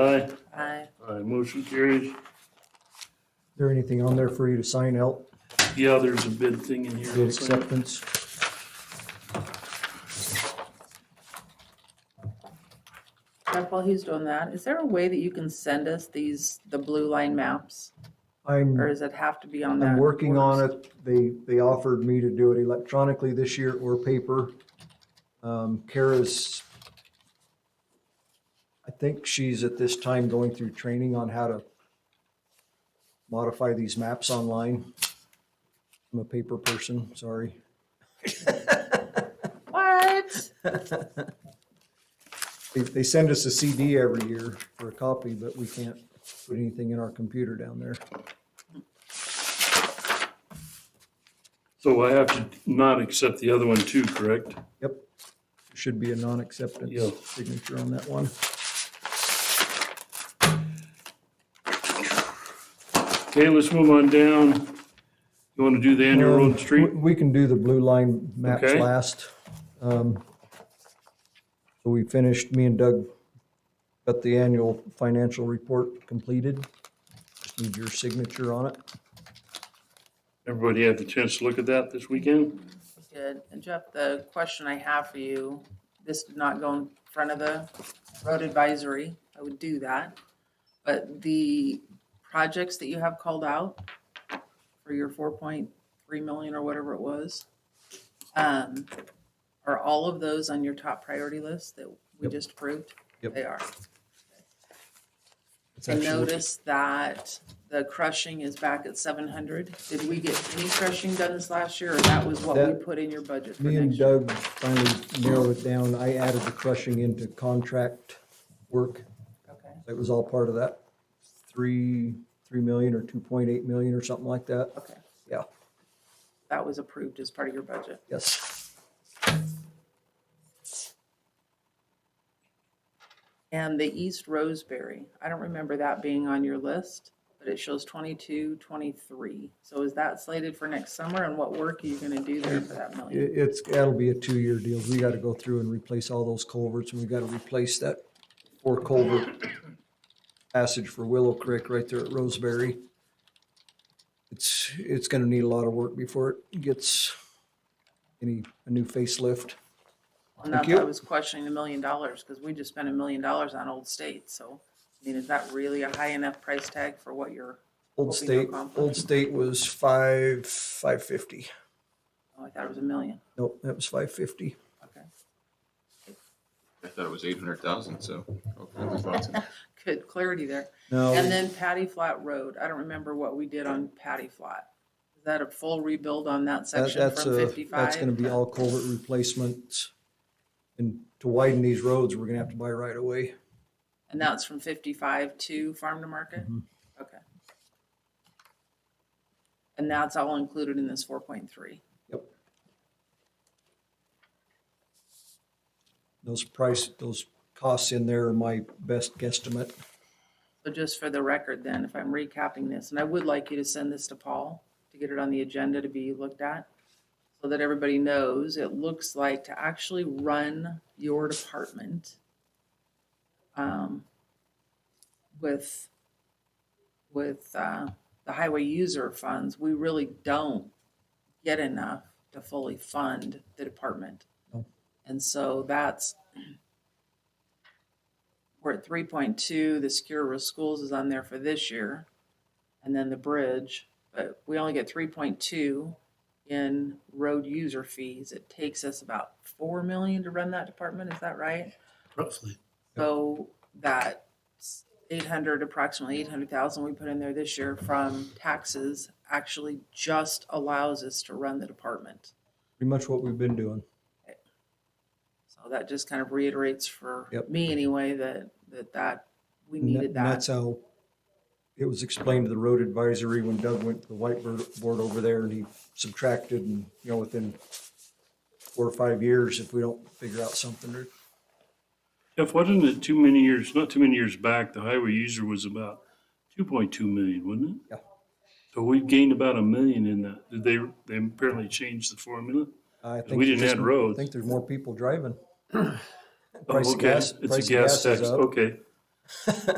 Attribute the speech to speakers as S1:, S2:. S1: Aye.
S2: Aye.
S1: Aye, motion carries.
S3: there anything on there for you to sign out,
S1: Yeah, there's a bid thing in here.
S3: bid acceptance?
S2: Jeff, while he's doing that, is there a way that you can send us these, the blue line maps? Or
S3: I'm,
S2: does it have to be on that?
S3: I'm working on
S2: orders?
S3: it. They, they offered me to do it electronically this year or paper. Um, Kara's, I think she's at this time going through training on how to modify these maps online. I'm a paper person, sorry.
S2: What?
S3: They, they send us a CD every year for a copy, but we can't put anything in our computer down there.
S1: So I have to not accept the other one too, correct?
S3: Yep. Should be a non-acceptance
S1: Yeah.
S3: signature on that one.
S1: Okay, let's move on down. You want to do the annual road
S3: Um,
S1: and street?
S3: we- We can do the blue line maps
S1: Okay.
S3: last. Um, So we finished, me and Doug got the annual financial report completed. Just need your signature on it.
S1: Everybody had the chance to look at that this weekend?
S2: Good. And Jeff, the question I have for you, this did not go in front of the road advisory. I would do that. But the projects that you have called out for your four point three million or whatever it was, um, are all of those on your top priority list that we
S3: Yep.
S2: just approved?
S3: Yep.
S2: They are.
S3: It's
S2: I
S3: actually-
S2: noticed that the crushing is back at seven hundred. Did we get any crushing done this last year, or that was what we
S3: That-
S2: put in your budget for
S3: Me
S2: next
S3: and
S2: year?
S3: Doug finally narrowed it down. I added the crushing into contract work.
S2: Okay,
S3: It was all part of that three, three million or two point eight million or something like that.
S2: okay.
S3: Yeah,
S2: That was approved as part of your budget.
S3: yes.
S2: And the East Roseberry, I don't remember that being on your list, but it shows 22, 23. So is that slated for next summer, and what work are you gonna do there for that million?
S3: It, it's, that'll be a two-year deal. We gotta go through and replace all those culverts and we gotta replace that four culvert passage for Willow Creek right there at Roseberry. It's, it's gonna need a lot of work before it gets any, a new facelift.
S2: And that's
S3: you.
S2: why I was questioning the million dollars, because we just spent a million dollars on Old State, so, I mean, is that really a high enough price tag for what you're, Hoping
S3: Old
S2: no
S3: State, Old
S2: conflict.
S3: State was five, five fifty.
S2: oh, I thought it was a million,
S3: Nope, that was five fifty.
S2: okay.
S4: I thought it was eight hundred thousand, so hopefully we bought some.
S2: Good clarity there.
S3: No,
S2: And then Patty Flat Road, I don't remember what we did on Patty Flat. Is that a full rebuild on that
S3: that-
S2: section
S3: that's
S2: from
S3: a, that's gonna
S2: fifty-five?
S3: be all culvert replacements. And to widen these roads, we're gonna have to buy right away.
S2: And that's from fifty-five to Farm to Market?
S3: Mhm.
S2: Okay. And that's all included in this four point three?
S3: Those price, those costs in there are my best guesstimate.
S2: So just for the record then, if I'm recapping this, and I would like you to send this to Paul to get it on the agenda to be looked at, so that everybody knows, it looks like to actually run your department um, with, with uh, the highway user funds, we really don't get enough to fully fund the department.
S3: No.
S2: And so that's we're at three point two, the secure risk schools is on there for this year. And then the bridge, but we only get three point two in road user fees. It takes us about four million to run that department, is that right?
S1: Roughly.
S2: So that eight hundred, approximately eight hundred thousand we put in there this year from taxes actually just allows us to run the department.
S3: Pretty much what we've been doing.
S2: So that just kind of reiterates for
S3: Yep.
S2: me anyway, that, that, that we
S3: And that-
S2: needed
S3: and
S2: that.
S3: That's how it was explained to the road advisory when Doug went to the whiteboard over there and he subtracted and, you know, within four or five years, if we don't figure out something, or
S1: Jeff, wasn't it too many years, not too many years back, the highway user was about two point two million, wasn't it?
S3: Yeah.
S1: So we've gained about a million in that. Did they, they apparently changed the formula?
S3: I think.
S1: We
S3: there's
S1: didn't
S3: just-
S1: add roads.
S3: I think there's more people driving.
S1: Oh,
S3: Price of
S1: okay.
S3: gas-
S1: It's
S3: price
S1: a
S3: of
S1: gas
S3: gas is
S1: tax,
S3: up.
S1: okay.